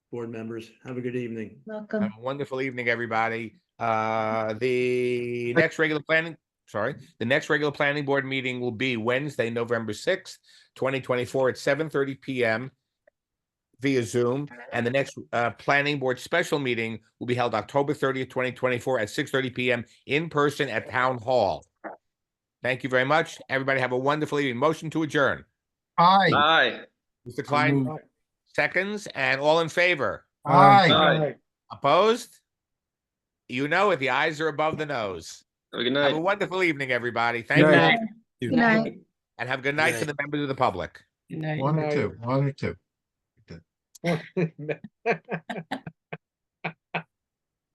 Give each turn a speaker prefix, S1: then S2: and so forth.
S1: board members. Have a good evening.
S2: Welcome.
S3: Have a wonderful evening, everybody. Uh, the next regular planning, sorry, the next regular planning board meeting will be Wednesday, November sixth, twenty twenty-four at seven thirty PM via Zoom, and the next uh planning board special meeting will be held October thirtieth, twenty twenty-four at six thirty PM in person at Town Hall. Thank you very much. Everybody have a wonderful evening. Motion to adjourn.
S4: Aye.
S5: Aye.
S3: Mr. Klein, seconds, and all in favor?
S4: Aye.
S5: Aye.
S3: Opposed? You know it, the eyes are above the nose.
S5: Have a good
S3: Have a
S5: night.
S3: wonderful evening, everybody. Thank you,
S2: Good
S3: and
S2: night. Good night.
S3: have a good night to the members of the public.
S4: One or two, one or two.